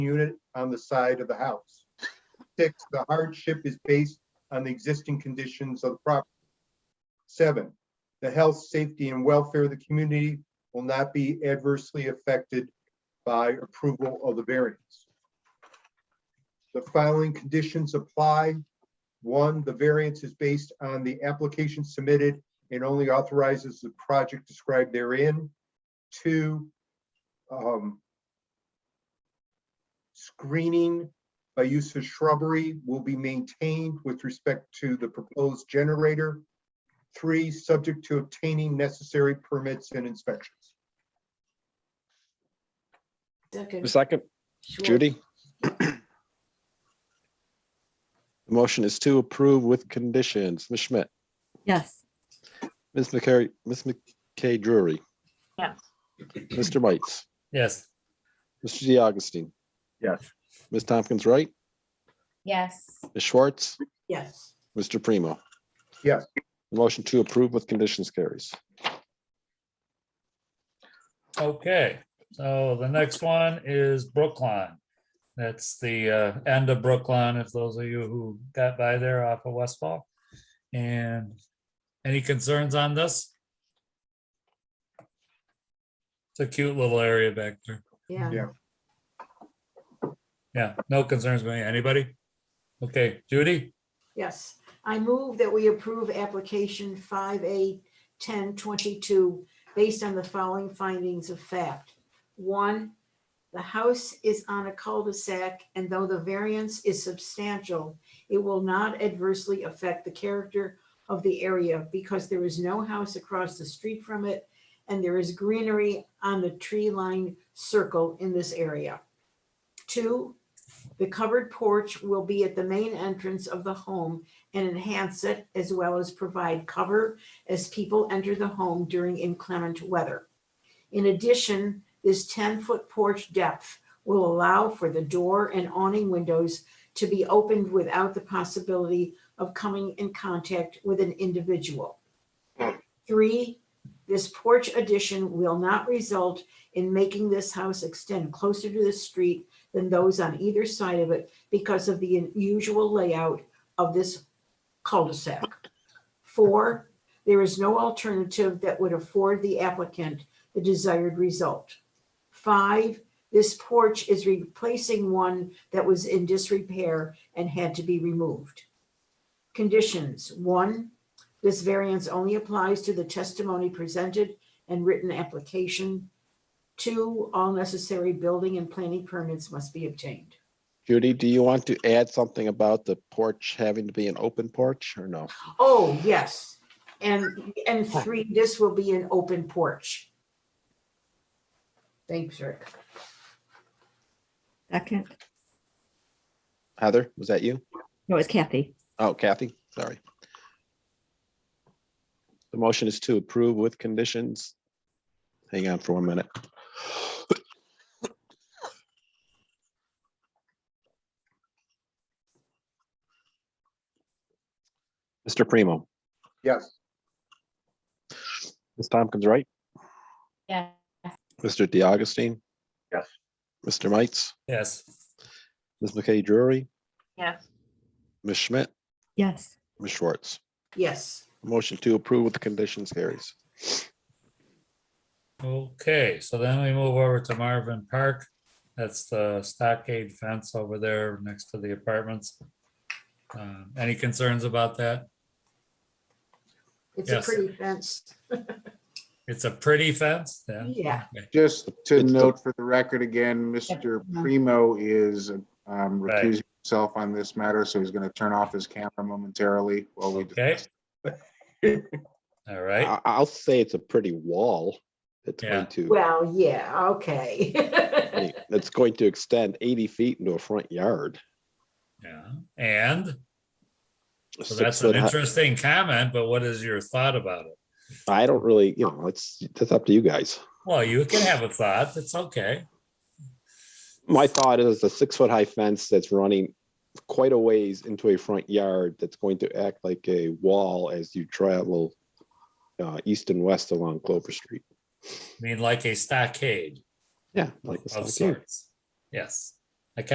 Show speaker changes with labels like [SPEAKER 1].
[SPEAKER 1] unit on the side of the house. Six, the hardship is based on the existing conditions of the property. Seven, the health, safety, and welfare of the community will not be adversely affected by approval of the variance. The following conditions apply. One, the variance is based on the application submitted and only authorizes the project described therein. Two, um, screening by use of shrubbery will be maintained with respect to the proposed generator. Three, subject to obtaining necessary permits and inspections.
[SPEAKER 2] Second.
[SPEAKER 3] A second,
[SPEAKER 2] Sure.
[SPEAKER 3] Judy. The Motion is to approve with conditions. Ms. Schmidt,
[SPEAKER 4] Yes.
[SPEAKER 3] Ms. McCary, Ms. McKay Drury.
[SPEAKER 5] Yes.
[SPEAKER 3] Mr. Bites,
[SPEAKER 6] yes,
[SPEAKER 3] Mr. DiAugustine.
[SPEAKER 1] Yes.
[SPEAKER 3] Ms. Tompkins Wright,
[SPEAKER 5] yes,
[SPEAKER 3] Ms. Schwartz,
[SPEAKER 2] Yes,
[SPEAKER 3] Mr. Primo.
[SPEAKER 1] Yes.
[SPEAKER 3] The Motion to approve with conditions carries.
[SPEAKER 6] okay. So the next one is Brookline. That's the uh, end of Brookline, if those of you who got by there off of Westfall. And any concerns on this? It's a cute little area back there.
[SPEAKER 2] yeah.
[SPEAKER 1] Yeah.
[SPEAKER 6] Yeah, no concerns, by anybody? Okay, Judy,
[SPEAKER 2] Yes, I move that we approve application five A ten twenty-two based on the following findings of fact. One, the house is on a cul-de-sac and though the variance is substantial, it will not adversely affect the character of the area because there is no house across the street from it and there is greenery on the tree-lined circle in this area. Two, the covered porch will be at the main entrance of the home and enhance it as well as provide cover as people enter the home during inclement weather. In addition, this ten-foot porch depth will allow for the door and awning windows to be opened without the possibility of coming in contact with an individual. Three, this porch addition will not result in making this house extend closer to the street than those on either side of it because of the unusual layout of this cul-de-sac. Four, there is no alternative that would afford the applicant the desired result. Five, this porch is replacing one that was in disrepair and had to be removed. Conditions, one, this variance only applies to the testimony presented and written application. Two, all necessary building and planning permits must be obtained.
[SPEAKER 3] Judy, do you want to add something about the porch having to be an open porch or no?
[SPEAKER 2] Oh, yes. And, and three, this will be an open porch. Thanks, Rick.
[SPEAKER 4] Second.
[SPEAKER 3] Heather, was that you?
[SPEAKER 4] No, it's Kathy.
[SPEAKER 3] Oh, Kathy, sorry. The motion is to approve with conditions. Hang on for one minute. Mr. Primo,
[SPEAKER 1] Yes.
[SPEAKER 3] Ms. Tompkins, right?
[SPEAKER 5] yes,
[SPEAKER 3] Mr. DiAugustine?
[SPEAKER 1] Yes.
[SPEAKER 3] Mr. Mites,
[SPEAKER 6] yes,
[SPEAKER 3] Ms. McKay Drury,
[SPEAKER 5] yes,
[SPEAKER 3] Ms. Schmidt,
[SPEAKER 4] Yes.
[SPEAKER 3] Ms. Schwartz.
[SPEAKER 2] Yes,
[SPEAKER 3] Motion to approve with conditions carries.
[SPEAKER 6] okay, so then we move over to Marvin Park. That's the stockade fence over there next to the apartments. Uh, Any concerns about that?
[SPEAKER 2] it's a
[SPEAKER 6] Yes.
[SPEAKER 2] pretty fence.
[SPEAKER 6] It's a pretty fence, yeah.
[SPEAKER 2] Yeah.
[SPEAKER 6] Okay.
[SPEAKER 7] Just to
[SPEAKER 3] It's the-
[SPEAKER 7] note for the record again, Mr. Primo is um,
[SPEAKER 6] Right.
[SPEAKER 7] recusing himself on this matter, so he's going to turn off his camera momentarily while we
[SPEAKER 6] Okay.
[SPEAKER 7] discuss.
[SPEAKER 6] All right,
[SPEAKER 3] I, I'll say it's a pretty wall. It's
[SPEAKER 6] Yeah.
[SPEAKER 3] going to.
[SPEAKER 2] Well, yeah, okay.
[SPEAKER 3] Hey, That's going to extend eighty feet into a front yard.
[SPEAKER 6] yeah, and
[SPEAKER 3] a
[SPEAKER 6] so
[SPEAKER 3] six
[SPEAKER 6] that's
[SPEAKER 3] foot
[SPEAKER 6] an
[SPEAKER 3] hi-
[SPEAKER 6] interesting comment, but what is your thought about it?
[SPEAKER 3] I don't really, you know, it's, that's up to you guys.
[SPEAKER 6] Well, you can have a thought, it's okay,
[SPEAKER 3] My thought is a six foot high fence that's running quite a ways into a front yard that's going to act like a wall as you travel uh, east and west along Clover Street.
[SPEAKER 6] I mean, like a stockade
[SPEAKER 3] Yeah. like a
[SPEAKER 6] of
[SPEAKER 3] stockade.
[SPEAKER 6] sorts, yes.